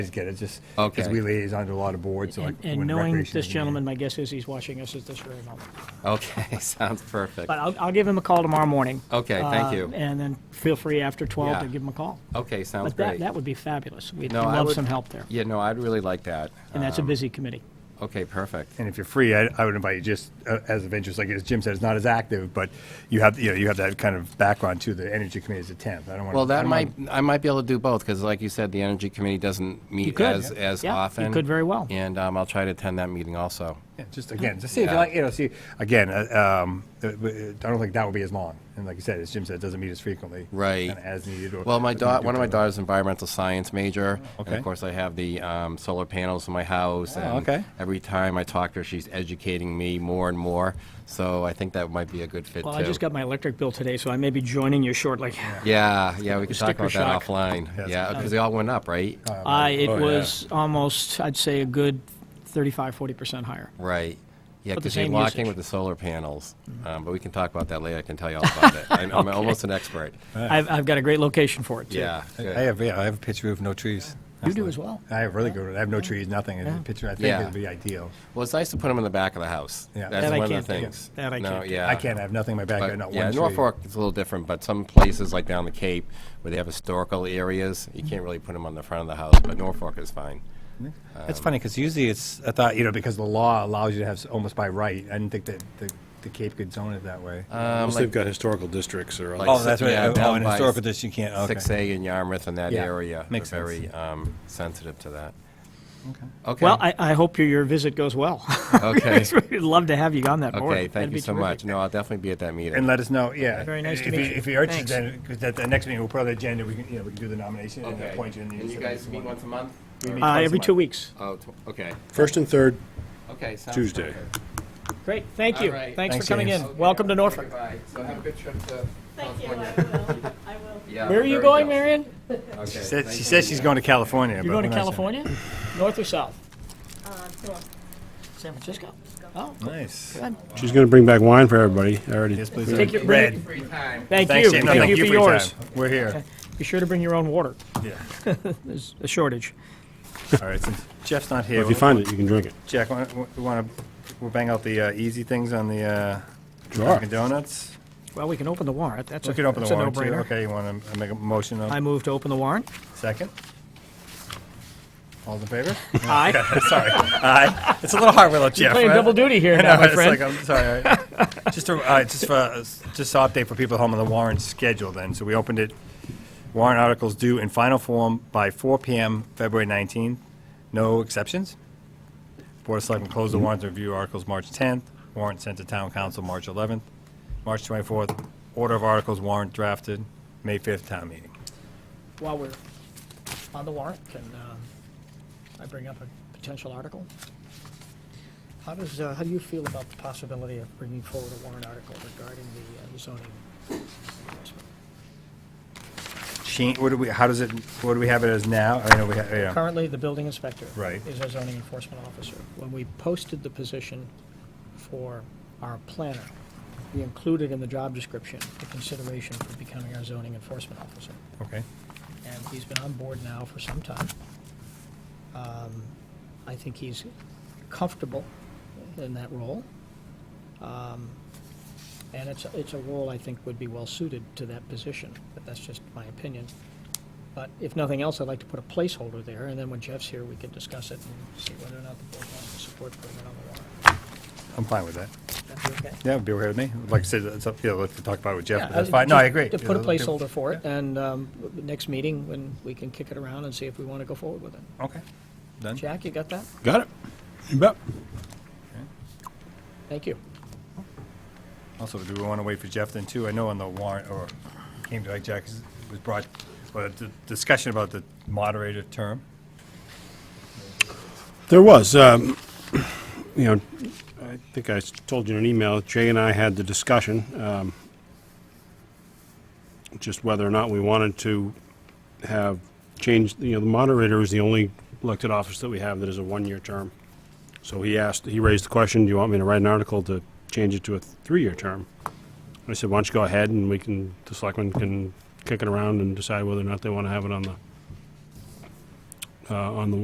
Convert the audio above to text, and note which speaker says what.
Speaker 1: get it, just
Speaker 2: Okay.
Speaker 1: because we liaison to a lot of boards, so like.
Speaker 3: And- And
Speaker 1: when
Speaker 3: knowing
Speaker 1: recreation
Speaker 3: this
Speaker 1: is-
Speaker 3: gentleman, my guess is he's watching us at this very moment.
Speaker 2: Okay, sounds perfect.
Speaker 3: But I'll, I'll give him a call tomorrow morning.
Speaker 2: Okay, thank
Speaker 3: uh,
Speaker 2: you.
Speaker 3: And then feel free after 12 to
Speaker 2: Yeah.
Speaker 3: give him a call.
Speaker 2: Okay, sounds
Speaker 3: But that,
Speaker 2: great.
Speaker 3: that would be fabulous. We'd
Speaker 2: No, I
Speaker 3: love
Speaker 2: would-
Speaker 3: some help there.
Speaker 2: Yeah, no, I'd really like that.
Speaker 3: And that's a busy committee.
Speaker 2: Okay, perfect.
Speaker 1: And if you're free, I, I would invite you just uh, as of interest, like as Jim said, it's not as active, but you have, you know, you have that kind of background to the energy committee as a tenth. I don't want to.
Speaker 2: Well, that might, I might be able to do both, because like you said, the Energy Committee doesn't meet
Speaker 3: could.
Speaker 2: as, as
Speaker 3: Yeah, you
Speaker 2: often.
Speaker 3: could very well.
Speaker 2: And um, I'll try to attend that meeting also.
Speaker 1: Yeah, Just again, just see if you
Speaker 2: Yeah.
Speaker 1: like, you know, see, again, uh, um, uh, uh, I don't think that would be as long. And like you said, as Jim said, it doesn't meet as frequently.
Speaker 2: Right.
Speaker 1: kinda As needed. or-
Speaker 2: Well, my
Speaker 1: or
Speaker 2: daughter,
Speaker 1: do
Speaker 2: one of my
Speaker 1: kind
Speaker 2: daughters, is environmental science major, and
Speaker 1: Okay.
Speaker 2: of course, I have the um, solar panels in my house.
Speaker 1: Oh,
Speaker 2: and
Speaker 1: okay.
Speaker 2: Every time I talk to her, she's educating me more and more. So I think that might be a good fit too.
Speaker 3: Well, I just got my electric bill today, so I may be joining you shortly.
Speaker 2: Yeah, yeah, we could talk
Speaker 3: Sticker
Speaker 2: about that
Speaker 3: shock.
Speaker 2: offline.
Speaker 1: it's
Speaker 2: Yeah, because they all went up, right?
Speaker 3: Uh, it
Speaker 1: Oh, yeah.
Speaker 3: was almost, I'd say, a good 35, 40% higher.
Speaker 2: Right. Yeah,
Speaker 3: But the
Speaker 2: because you're
Speaker 3: same
Speaker 2: locked in
Speaker 3: usage.
Speaker 2: with the solar panels. Um, But we can talk about that later. I can tell you all about it. I'm I'm almost an expert.
Speaker 3: I've, I've got a great location for it, too.
Speaker 2: Yeah. good.
Speaker 4: I have, yeah, I have a pitch roof, no trees.
Speaker 3: You do as well.
Speaker 1: I have really good, I have no trees, nothing. And the picture, I think
Speaker 2: Yeah.
Speaker 1: it'd be ideal.
Speaker 2: Well, it's nice to put them in the back of the house.
Speaker 1: Yeah.
Speaker 2: That's
Speaker 1: That
Speaker 3: I
Speaker 2: one of
Speaker 3: can't
Speaker 2: the
Speaker 3: do.
Speaker 2: things.
Speaker 3: That I
Speaker 2: No,
Speaker 3: can't do.
Speaker 2: yeah.
Speaker 1: I can't have nothing in my
Speaker 2: But,
Speaker 1: backyard, not
Speaker 2: yeah,
Speaker 1: one tree.
Speaker 2: Norfolk is a little different, but some places like down the Cape where they have historical areas, you can't really put them on the front of the house. But Norfolk is fine.
Speaker 4: That's funny, because usually it's,
Speaker 1: I thought, you know, because the law allows you to have s- almost by right. I didn't think that the, the Cape could zone it that way.
Speaker 5: Unless they've got historical districts or
Speaker 2: Like
Speaker 5: other-
Speaker 4: oh, that's right,
Speaker 2: Uh, Yeah,
Speaker 4: oh,
Speaker 2: down
Speaker 4: in
Speaker 2: by
Speaker 4: historical district, you can't, okay.
Speaker 2: Six A in Yarmouth and that
Speaker 1: Yeah,
Speaker 2: area.
Speaker 4: makes
Speaker 2: They're
Speaker 4: sense.
Speaker 2: Very um, sensitive to that. Okay.
Speaker 3: Well, I, I hope your, your visit goes well.
Speaker 2: Okay.
Speaker 3: We'd love to have you on that board.
Speaker 2: Okay,
Speaker 3: That'd
Speaker 2: thank you
Speaker 3: be
Speaker 2: so
Speaker 3: terrific.
Speaker 2: much. No, I'll definitely be at that meeting.
Speaker 1: And let us know, yeah.
Speaker 3: Very nice to
Speaker 1: If
Speaker 3: meet you.
Speaker 1: If you're interested,
Speaker 3: Thanks.
Speaker 1: then, because at the next meeting, we'll put on the agenda, we can, you know, we can do the nomination and appoint you.
Speaker 2: And you
Speaker 1: said
Speaker 2: guys
Speaker 1: if
Speaker 2: meet
Speaker 1: want-
Speaker 2: once a month?
Speaker 1: We
Speaker 2: Or-
Speaker 1: meet
Speaker 3: Uh,
Speaker 1: twice a
Speaker 3: every
Speaker 1: month.
Speaker 3: two weeks.
Speaker 2: Oh, tw- okay,
Speaker 5: First and third,
Speaker 2: okay. sounds
Speaker 5: Tuesday.
Speaker 2: perfect.
Speaker 3: Great, thank you.
Speaker 2: All right.
Speaker 3: Thanks for
Speaker 1: Thanks,
Speaker 3: coming in.
Speaker 1: James.
Speaker 2: Okay,
Speaker 3: Welcome to
Speaker 2: okay,
Speaker 3: Norfolk.
Speaker 2: Bye, so have a good trip to
Speaker 6: Thank you, I
Speaker 2: California.
Speaker 6: will, I will.
Speaker 2: Yeah,
Speaker 3: Where are you
Speaker 2: very
Speaker 3: going,
Speaker 2: jealous.
Speaker 3: Marion?
Speaker 2: Okay,
Speaker 1: She said-
Speaker 2: thank
Speaker 1: She
Speaker 2: you.
Speaker 1: says she's going to California.
Speaker 3: You're
Speaker 1: but
Speaker 3: going to
Speaker 1: who knows?
Speaker 3: California? North or south?
Speaker 6: Uh, Norm.
Speaker 3: San Francisco? Oh,
Speaker 1: Nice.
Speaker 5: She's going to bring back wine for everybody. I already.
Speaker 1: Yes, please.
Speaker 3: Take your-
Speaker 1: Red.
Speaker 2: Free time.
Speaker 3: thank
Speaker 1: Thanks,
Speaker 3: you.
Speaker 1: Jane. No, thank you for your
Speaker 3: yours.
Speaker 1: time. We're here.
Speaker 3: Be sure to bring your own water.
Speaker 1: Yeah.
Speaker 3: There's a shortage.
Speaker 1: All right, since Jeff's not here.
Speaker 5: If you
Speaker 1: we'll-
Speaker 5: find it, you can drink it.
Speaker 1: Jack, wa- wa- we want to, we'll bang out the uh, easy things on the uh,
Speaker 5: Sure.
Speaker 1: Dunkin' Donuts.
Speaker 3: Well, we can open the warrant. That's a,
Speaker 1: We could open
Speaker 3: that's
Speaker 1: the
Speaker 3: a
Speaker 1: warrant too.
Speaker 3: no-brainer.
Speaker 1: Okay, you want to make a motion
Speaker 3: I
Speaker 1: on
Speaker 3: move to open the warrant.
Speaker 1: second? All's in favor?
Speaker 3: Aye.
Speaker 1: Sorry. Aye. It's a little hard without Jeff.
Speaker 3: Playing
Speaker 1: right?
Speaker 3: double duty here
Speaker 1: I know,
Speaker 3: now, my
Speaker 1: it's like,
Speaker 3: friend.
Speaker 1: I'm sorry. all right. Just to, all right, just for, uh, just to update for people at home on the warrant schedule then. So we opened it, warrant articles due in final form by 4 PM, February 19th. No exceptions. Board of Selectmen closed the warrant to review articles March 10th. Warrant sent to town council March 11th. March 24th, order of articles warrant drafted, May 5th town meeting.
Speaker 3: While we're on the warrant, can um, I bring up a potential article? How does, uh, how do you feel about the possibility of bringing forward a warrant article regarding the uh, zoning adjustment?
Speaker 1: Sheen, what do we, how does it, what do we have it as now? I know we, ha- yeah.
Speaker 3: Currently, the building inspector.
Speaker 1: Right.
Speaker 3: Is our zoning enforcement officer. When we posted the position for our planner, we included in the job description the consideration for becoming our zoning enforcement officer.
Speaker 1: Okay.
Speaker 3: And he's been on board now for some time. Um, I think he's comfortable in that role. Um, And it's, it's a role I think would be well-suited to that position, but that's just my opinion. But if nothing else, I'd like to put a placeholder there, and then when Jeff's here, we can discuss it and see whether or not the board wants to support putting it on the warrant.
Speaker 1: I'm fine with that.
Speaker 3: That'd be okay?
Speaker 1: Yeah, it'd be okay with me. Like I said, it's up, yeah, let's talk about it with Jeff, but
Speaker 3: Yeah, uh,
Speaker 1: that's fine. No,
Speaker 3: just
Speaker 1: I agree.
Speaker 3: To put a
Speaker 1: Yeah, let's do-
Speaker 3: placeholder for it, and um, w- next meeting, when we can kick it around and see if we want to go forward with it.
Speaker 1: Okay, done.
Speaker 3: Jack, you got that?
Speaker 5: Got it. You bet.
Speaker 3: Thank you.
Speaker 1: Also, do we want to wait for Jeff then too? I know on the warrant, or came to like Jack, was brought, well, the discussion about the moderator term.
Speaker 5: There was, um, you know, I think I s- told you in an email, Jay and I had the discussion, um, just whether or not we wanted to have changed, you know, the moderator is the only elected office that we have that is a one-year term. So he asked, he raised the question, do you want me to write an article to change it to a three-year term? I said, why don't you go ahead and we can, the selectmen can kick it around and decide whether or not they want to have it on the uh, on the